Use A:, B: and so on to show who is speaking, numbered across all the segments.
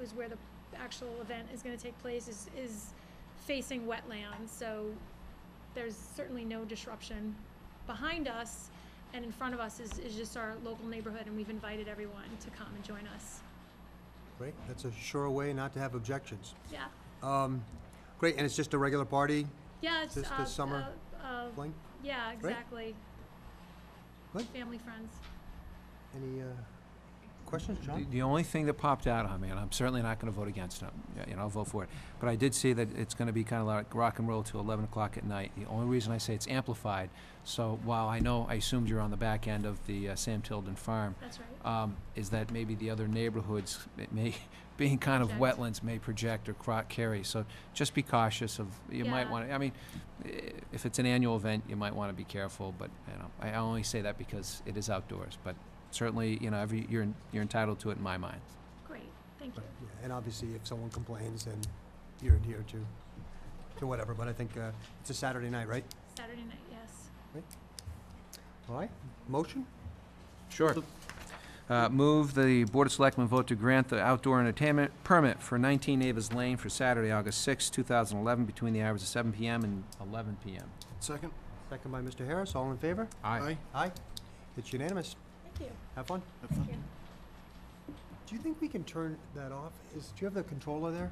A: is where the actual event is gonna take place, is, is facing wetlands, so there's certainly no disruption behind us, and in front of us is, is just our local neighborhood, and we've invited everyone to come and join us.
B: Great, that's a sure way not to have objections.
A: Yeah,
B: Um, great, and it's just a regular party
A: yeah, it's, uh,
B: Just the summer
A: uh, uh,
B: fling?
A: yeah, exactly.
B: Good.
A: Family, friends.
B: Any, uh, questions,
C: The-
B: John?
C: The only thing that popped out on me, and I'm certainly not gonna vote against it, yeah, you know, I'll vote for it, but I did see that it's gonna be kinda like rock and roll till eleven o'clock at night. The only reason I say it's amplified, so while I know, I assumed you're on the back end of the uh, Sam Tilden Farm,
A: That's right.
C: um, is that maybe the other neighborhoods, it may, being kind of
A: Project.
C: wetlands, may project or cro- carry, so just be cautious of, you might
A: Yeah.
C: wanna, I mean, i- if it's an annual event, you might wanna be careful, but, you know, I only say that because it is outdoors, but certainly, you know, every, you're, en- you're entitled to it in my mind.
A: Great, thank you.
B: Yeah, And obviously, if someone complains, then you're adhered to, to whatever, but I think, uh, it's a Saturday night, right?
A: Saturday night, yes.
B: All right, motion?
C: Sure. Uh, move the Board of Selectmen vote to grant the outdoor entertainment permit for nineteen Avers Lane for Saturday, August sixth, two thousand eleven, between the hours of seven PM and eleven PM.
D: Second?
B: Second by Mr. Harris, all in favor?
D: Aye.
B: Aye, it's unanimous.
A: Thank you.
B: Have fun.
D: Have fun.
B: Do you think we can turn that off? Is, do you have the controller there?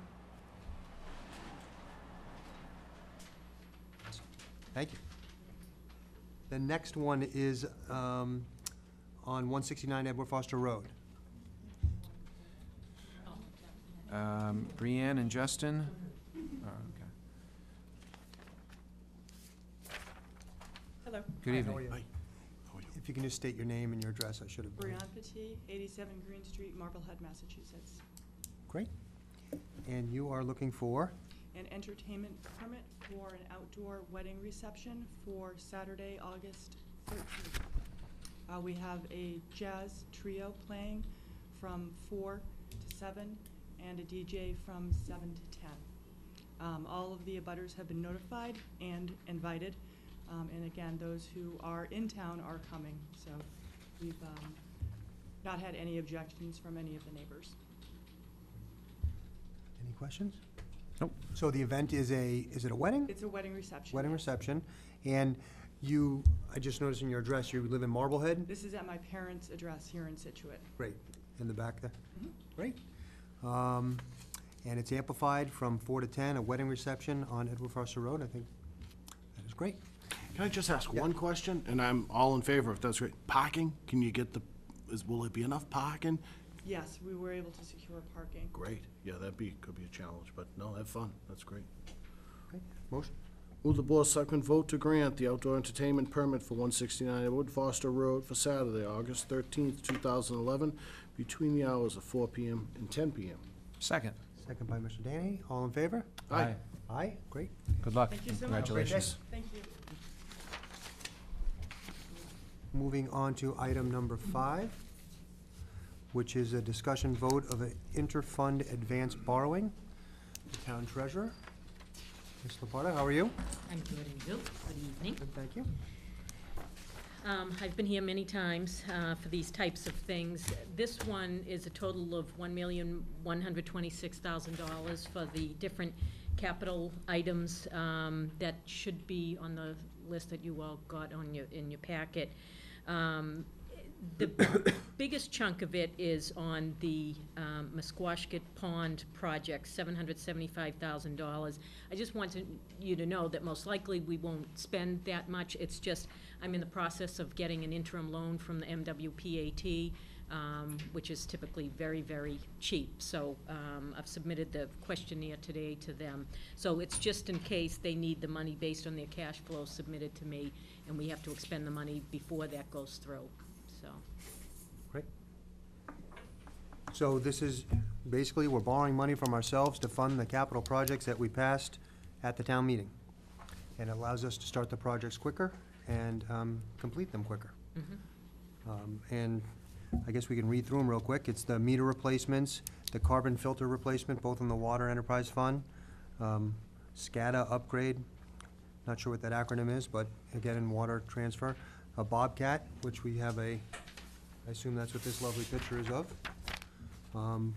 B: Thank you. The next one is um, on 169 Edward Foster Road.
C: Um, Brianne and Justin? Oh, okay.
E: Hello,
C: Good
B: Hi, how are
C: evening.
B: you?
D: Hi. How are you?
B: If you can just state your name and your address, I should have.
E: Brianne Petit, 87 Green Street, Marblehead, Massachusetts.
B: Great. And you are looking for,
E: An entertainment permit for an outdoor wedding reception for Saturday, August 13th. Uh, We have a jazz trio playing from 4 to 7 and a DJ from 7 to 10. Um, All of the abutters have been notified and invited. Um, And again, those who are in town are coming, so we've um, not had any objections from any of the neighbors.
B: any questions?
C: Nope.
B: So the event is a, is it a wedding?
E: It's a wedding reception.
B: Wedding
E: yes.
B: reception. And you, I just noticed in your address, you live in Marblehead?
E: This is at my parents' address here in Situate.
B: Great, in the back there?
E: Mhm.
B: Great. Um, And it's amplified from four to ten, a wedding reception on Edward Foster Road, I think that is great.
D: Can I just ask
B: Yeah.
D: one question? And I'm all in favor if that's great. Parking, can you get the, is, will it be enough parking?
E: Yes, we were able to secure parking.
D: Great, yeah, that'd be, could be a challenge, but no, have fun, that's great.
B: Great. Motion,
D: Will the Board of Selectmen vote to grant the outdoor entertainment permit for one sixty-nine Edward Foster Road for Saturday, August thirteenth, two thousand eleven, between the hours of four PM and ten PM?
C: Second.
B: second by Mr. Danny, all in favor?
D: Aye.
B: Aye, great.
C: Good luck.
E: Thank you so much.
C: Congratulations.
E: Thank you.
B: Moving on to item number five, which is a discussion vote of an inter-fund advance borrowing. The Town treasurer, Ms. Laporta, how are you?
F: I'm good and Bill, good evening.
B: Good, thank you.
F: Um, I've been here many times, uh, for these types of things. This one is a total of one million, one hundred twenty-six thousand dollars for the different capital items, um, that should be on the list that you all got on your, in your packet. Um, the biggest chunk of it is on the um, Musquashkett Pond project, seven hundred seventy-five thousand dollars. I just wanted you to know that most likely we won't spend that much. It's just, I'm in the process of getting an interim loan from the MWPAT, um, which is typically very, very cheap. So um, I've submitted the questionnaire today to them. So it's just in case they need the money based on their cash flow submitted to me, and we have to expend the money before that goes through, so.
B: Great. So this is, basically, we're borrowing money from ourselves to fund the capital projects that we passed at the town meeting. And it allows us to start the projects quicker and um, complete them quicker. Um, And I guess we can read through them real quick. It's the meter replacements, the carbon filter replacement, both in the Water Enterprise Fund, um, SCADA upgrade, not sure what that acronym is, but again, in water transfer, a Bobcat, which we have a I assume that's what this lovely picture is of. Um,